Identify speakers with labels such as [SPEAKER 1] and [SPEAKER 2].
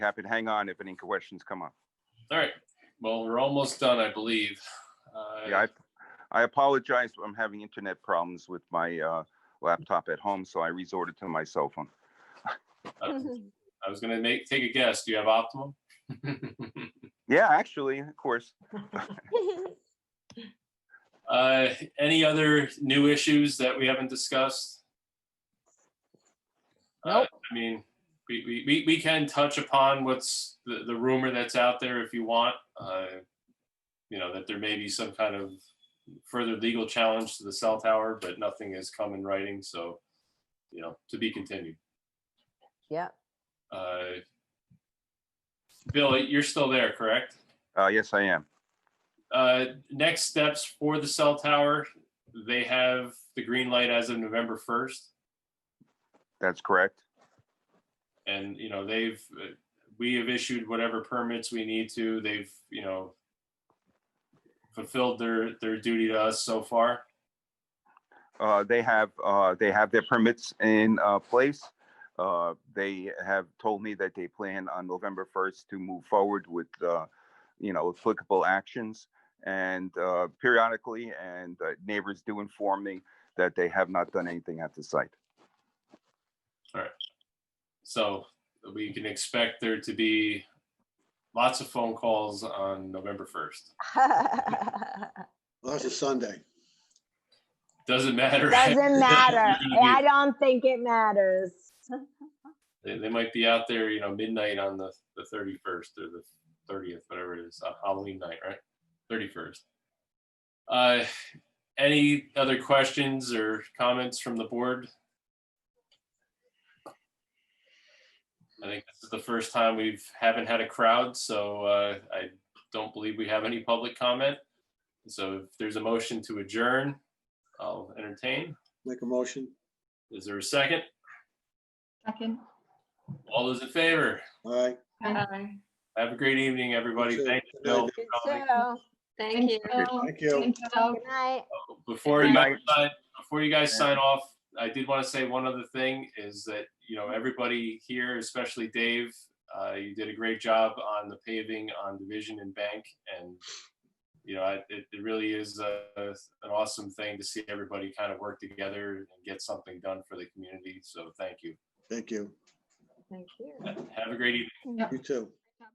[SPEAKER 1] happy to hang on if any questions come up.
[SPEAKER 2] All right, well, we're almost done, I believe. Uh,
[SPEAKER 1] Yeah, I, I apologize, but I'm having internet problems with my uh, laptop at home, so I resorted to my cell phone.
[SPEAKER 2] I I was gonna make, take a guess. Do you have optimum?
[SPEAKER 1] Yeah, actually, of course.
[SPEAKER 2] Uh, any other new issues that we haven't discussed? Uh, I mean, we, we, we, we can touch upon what's the, the rumor that's out there if you want. uh, You know, that there may be some kind of further legal challenge to the cell tower, but nothing has come in writing, so, you know, to be continued.
[SPEAKER 3] Yeah,
[SPEAKER 2] Uh, Bill, you're still there, correct?
[SPEAKER 1] Uh, yes, I am.
[SPEAKER 2] Uh, next steps for the cell tower, they have the green light as of November first.
[SPEAKER 1] That's correct.
[SPEAKER 2] And, you know, they've, uh, we have issued whatever permits we need to. They've, you know, fulfilled their, their duty to us so far.
[SPEAKER 1] Uh, they have, uh, they have their permits in, uh, place. Uh, they have told me that they plan on November first to move forward with, uh, you know, applicable actions. And, uh, periodically, and uh, neighbors do inform me that they have not done anything at the site.
[SPEAKER 2] So we can expect there to be lots of phone calls on November first.
[SPEAKER 4] That's a Sunday.
[SPEAKER 2] Doesn't matter.
[SPEAKER 3] Doesn't matter. I don't think it matters.
[SPEAKER 2] They, they might be out there, you know, midnight on the, the thirty-first or the thirtieth, whatever it is, uh, Halloween night, right? Thirty-first. Uh, any other questions or comments from the board? I think this is the first time we've, haven't had a crowd, so, uh, I don't believe we have any public comment. So if there's a motion to adjourn, I'll entertain.
[SPEAKER 4] Make a motion.
[SPEAKER 2] Is there a second?
[SPEAKER 5] Second.
[SPEAKER 2] All those in favor?
[SPEAKER 4] All right.
[SPEAKER 5] Aye.
[SPEAKER 2] Have a great evening, everybody.
[SPEAKER 4] You too.
[SPEAKER 2] Thank you,
[SPEAKER 4] Good
[SPEAKER 2] Bill.
[SPEAKER 4] night,
[SPEAKER 3] Good
[SPEAKER 2] for coming.
[SPEAKER 3] show.
[SPEAKER 5] Thank you.
[SPEAKER 4] Thank you.
[SPEAKER 5] Thank
[SPEAKER 3] Good night.
[SPEAKER 2] Before
[SPEAKER 1] Good
[SPEAKER 2] you
[SPEAKER 1] night.
[SPEAKER 2] guys- before you guys sign off, I did want to say one other thing is that, you know, everybody here, especially Dave, uh, you did a great job on the paving on Division and Bank and, you know, I- it, it really is a, an awesome thing to see everybody kind of work together and get something done for the community. So thank you.
[SPEAKER 4] Thank you.
[SPEAKER 3] Thank you.
[SPEAKER 2] Have a great evening.
[SPEAKER 4] You too.